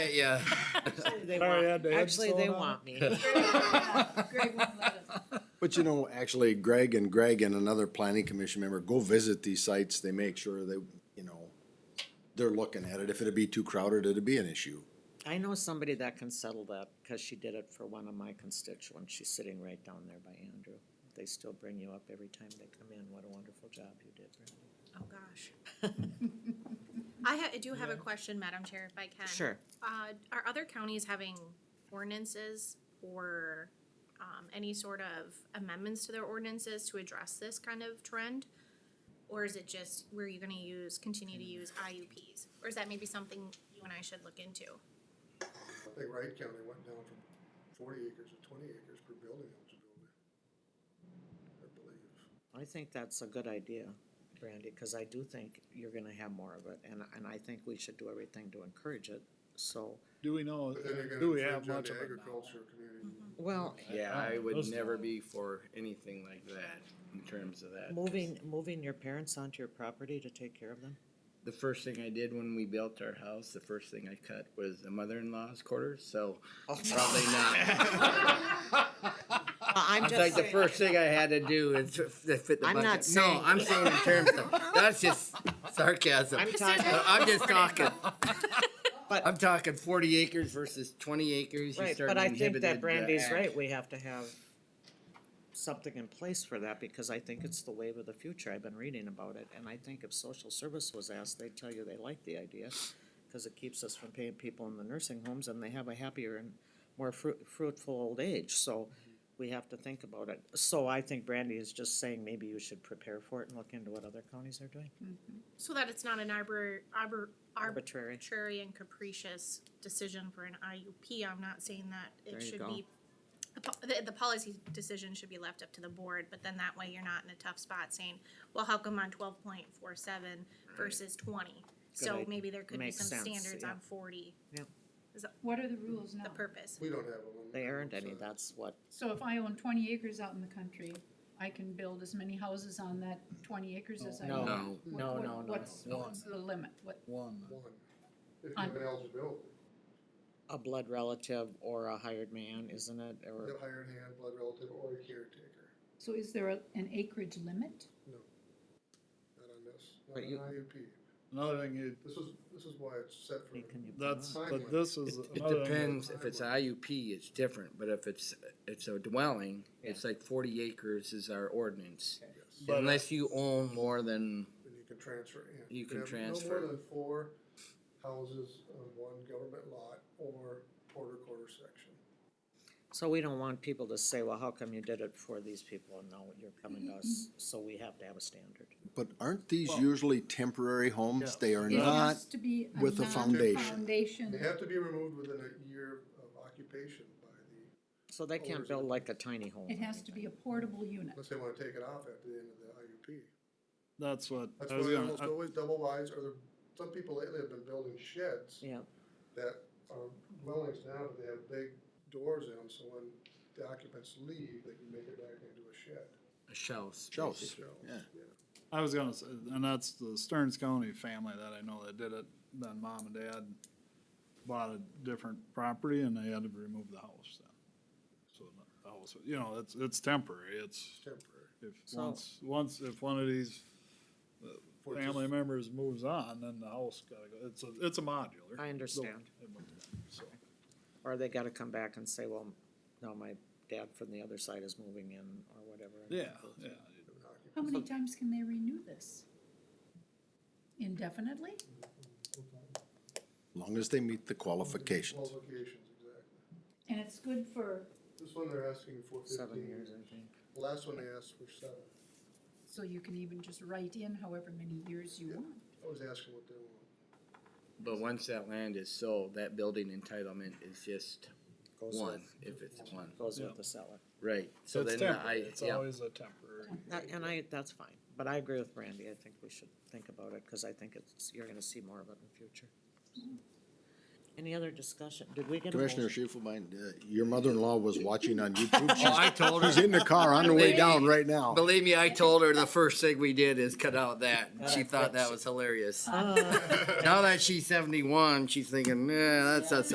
Yeah. They Sorry, I want, had to add actually, they soda. want me. Greg won't let us. But you know, actually Greg and Greg and another planning commission member go visit these sites. They make sure they, you know, they're looking at it. If it'd be too crowded, it'd be an issue. I know somebody that can settle that, because she did it for one of my constituents, she's sitting right down there by Andrew. They still bring you up every time they come in, what a wonderful job you did, Brandy. Oh, gosh. I ha- I do have a question, Madam Chair, if I can. Sure, Uh, are other counties having ordinances or, um, any sort of amendments to their ordinances to address this kind of trend? Or is it just, were you gonna use, continue to use IUPs? Or is that maybe something you and I should look into? I think Wright County went down from forty acres to twenty acres per building eligibility. I believe. I think that's a good idea, Brandy, because I do think you're gonna have more of it, and, and I think we should do everything to encourage it, so, Do we know, But then do you're gonna we have infringe on much the of it now? agriculture community. well, Yeah, I would Those- never be for anything like that in terms of that. 'cause moving, moving your parents onto your property to take care of them? The first thing I did when we built our house, the first thing I cut was the mother-in-law's quarters, so probably not. I'm It's like just the saying, first thing I had to do is to fit the I'm bucket. not saying- No, I'm saying in terms of, that's just sarcasm. I'm talking, No, I'm just talking. But- I'm talking forty acres versus twenty acres. you Right, start but I think inhibited that the Brandy's act. right, we have to have something in place for that, because I think it's the wave of the future, I've been reading about it, and I think if social service was asked, they'd tell you they like the idea, cause it keeps us from paying people in the nursing homes, and they have a happier and more fruit, fruitful old age, so Mm-hmm. we have to think about it. So I think Brandy is just saying maybe you should prepare for it and look into what other counties are doing, So that it's not an arbor, arbor, arbor, arbitrary. arbitrary and capricious decision for an IUP. I'm not saying that There it you should go. be, the po- the, the policy decision should be left up to the board, but then that way you're not in a tough spot saying, well, how come on twelve point four seven versus twenty? So idea. maybe there could be Makes some sense, standards yeah. on forty, What are the rules now? the purpose. We don't have one. uh, They aren't any, that's what, So if I own twenty acres out in the country, I can build as many houses on that twenty acres as I No. want? No. No, What- what- no, no, no. What's, what's the limit? What, One. One, if you On- have an eligibility, a blood relative or a hired man, isn't it, or? the hired hand, blood relative, or a caretaker, so is there a- an acreage limit? not on this, not But on you- IUP. Another thing, you- This is, this is why it's set for. Hey, can you- that's, Finally. but this is It- It another thing. depends, if it's IUP, it's different, but if it's, it's a dwelling, it's like forty acres is our ordinance. Yes. But- Unless you own more than, And you can transfer in. You can have transfer. No more than four houses on one government lot or quarter quarter section. So we don't want people to say, well, how come you did it for these people and now you're coming to us, so we have to have a standard. But aren't these usually temporary homes? They are It not, has to be a with a foundation. non-foundation. They have to be removed within a year of occupation by the, So they can't build like a tiny home. It has to be a portable unit. unless they wanna take it off at the end of the IUP. That's what, That's I was why gonna, almost I- always double wides, or there- some people lately have been building sheds Yeah, that are dwellings now, but they have big doors in them, so when the occupants leave, they can make it back into a shed. a shells. Oh, Shells. basically. So, Yeah. I was gonna say, and that's the Stearns County family that I know that did it, then mom and dad bought a different property and they had to remove the house then. So the house, you know, it's, it's temporary, it's, Temporary. if, So- once, once, if one of these uh, For just- family members moves on, then the house gotta go, it's a, it's a modular. I understand. So, Or they gotta come back and say, well, no, my dad from the other side is moving in or whatever. Yeah, yeah, How many times can they renew this? Indefinitely? long as they meet the qualifications. Qualifications, exactly. And it's good for, This one they're asking for Seven fifteen years, I think. The Last one they asked for seven. so you can even just write in however many years you want. I was asking what they want. But once that land is sold, that building entitlement is just Goes with- one, if it's one, Goes Yeah. with the seller. right, so so it's then the temporary, I, it's yeah, always a temporary. That- And I, that's fine, but I agree with Brandy, I think we should think about it, cause I think it's, you're gonna see more of it in the future. Mm-hmm. Any other discussion? Did we get a Commissioner motion? Shifelbein, uh, your mother-in-law was watching on YouTube. She's- Oh, I told She's in the car on the way down right now. believe me, I told her the first thing we did is cut out that, Yeah, she that's thought what that she- was hilarious. Uh, Now that she's seventy-one, she's thinking, eh, that's not so